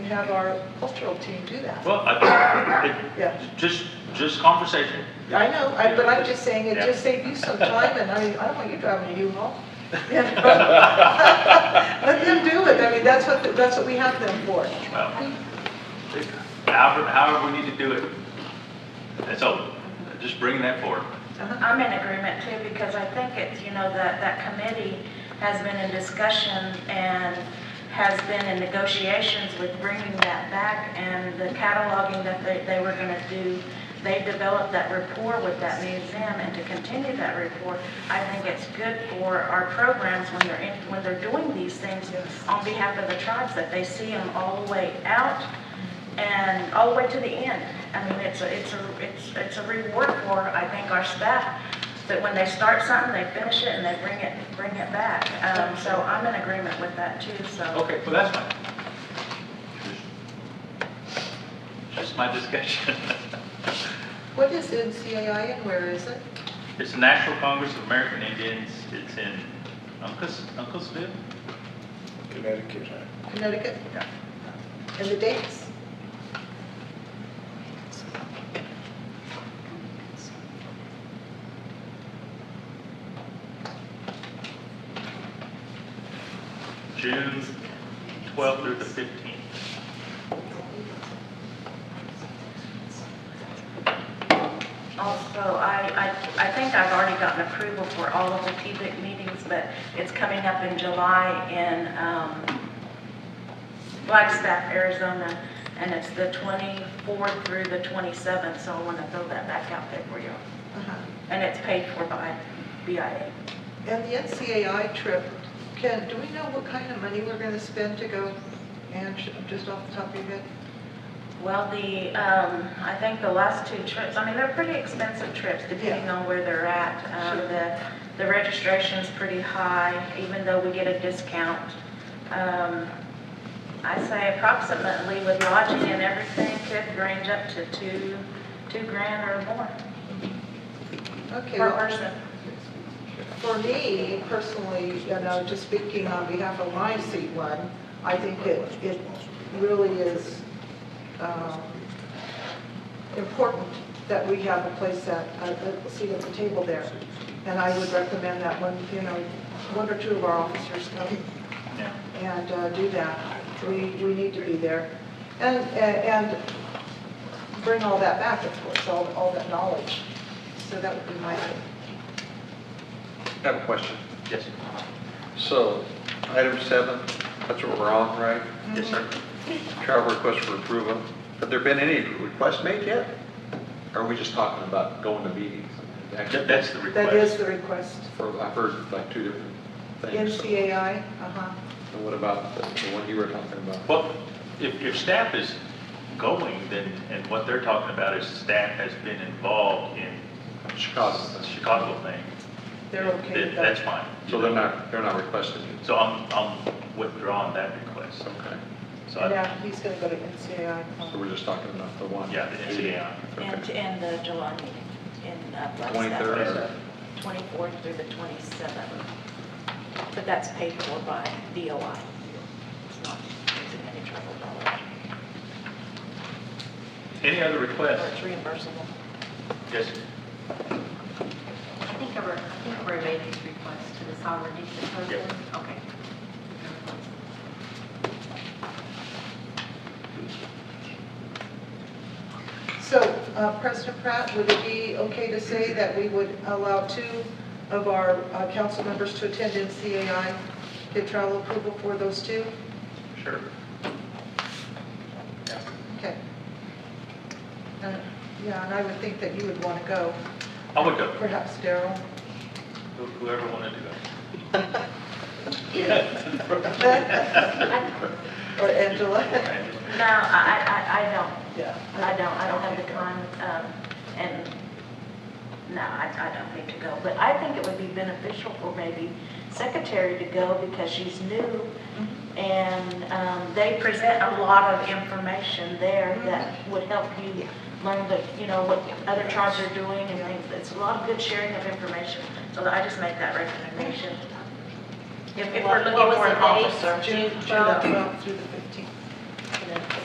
have our cultural team do that. Well, I, Yeah. it, just, just conversation. I know, I- but I'm just saying, it just saved you some time, and I, I don't want you driving a U-Haul. You know? Let them do it, I mean, that's what, that's what we have them for. Well, it- However, however we need to do it. That's all, just bringing that forward. I'm in agreement too, because I think it's, you know, that, that committee has been in discussion and has been in negotiations with bringing that back and the cataloging that they, they were gonna do. They developed that rapport with that museum and to continue that rapport, I think it's good for our programs when they're in, when they're doing these things on behalf of the tribes, that they see them all the way out and all the way to the end. I mean, it's a, it's a, it's, it's a reward for, I think, our staff, that when they start something, they finish it and they bring it, bring it back. Um, so I'm in agreement with that too, so. Okay, well, that's fine. Just my discussion. What is NCAI and where is it? It's the National Congress of American Indians. It's in Uncas, Uncasville? Connecticut. Connecticut? Yeah. And the dates? June 12th through the 15th. Also, I, I, I think I've already gotten approval for all of the TIBIC meetings, but it's coming up in July in, um, Flagstaff, Arizona, and it's the 24th through the 27th, so I want to throw that back out there for you. Uh-huh. And it's paid for by BIA. And the NCAI trip, Ken, do we know what kind of money we're gonna spend to go? And sh- just off the top of your head? Well, the, um, I think the last two trips, I mean, they're pretty expensive trips depending on where they're at. Um, Sure. the, the registration's pretty high, even though we get a discount. Um, I say approximately with lodging and everything could range up to two, two grand or more Okay. per well- person. For me personally, you know, just speaking on behalf of my C1, I think it, it really is um, important that we have a place at, a a seat at the table there. And I would recommend that one, you know, one or two of our officers come Yeah. and uh, do that. We, we need to be there. And, and bring all that back, of course, all, all that knowledge. So that would be my thing. I have a question. Yes, So, item seven, that's what we're on, right? yes, sir. Travel request for approval. Have there been any requests made yet? Or are we just talking about going to meetings? That- That's the request. That is the request. For, I've heard like two different things. NCAI, uh-huh. And what about the the one you were talking about? Well, if, if staff is going, then, and what they're talking about is staff has been involved in Chicago. the Chicago thing. They're okay with That's that. fine. So they're not, they're not requesting it? So I'm, I'm withdrawing that request. Okay. So And I, now he's going to go to NCAI. So we're just talking about the one? yeah, the NCAI. And, and the July meeting in uh, Flagstaff. 23rd or- 24th through the 27th. But that's paid for by DOI. It's not using any travel dollars. Any other Or requests? it's reimbursable. Yes, I think I re- I think I relayed these requests to the sovereignty proposal. Okay. So uh, President Pratt, would it be okay to say that we would allow two of our uh, council members to attend NCAI, get travel approval for those two? sure. Okay. Uh, Yeah, and I would think that you would want to go, I would go, perhaps Daryl. Who- whoever wanted to go. Or Angela. No, I, I, I don't. Yeah. I don't, I don't have the time, um, and, no, I, I don't need to go. But I think it would be beneficial for maybe secretary to go because she's new and, um, they present a lot of information there that would help you learn the, you know, what other tribes are doing and things. It's a lot of good sharing of information, so I just make that recommendation. If, if we're looking What was for an the date? officer. June June 12th 12th. through the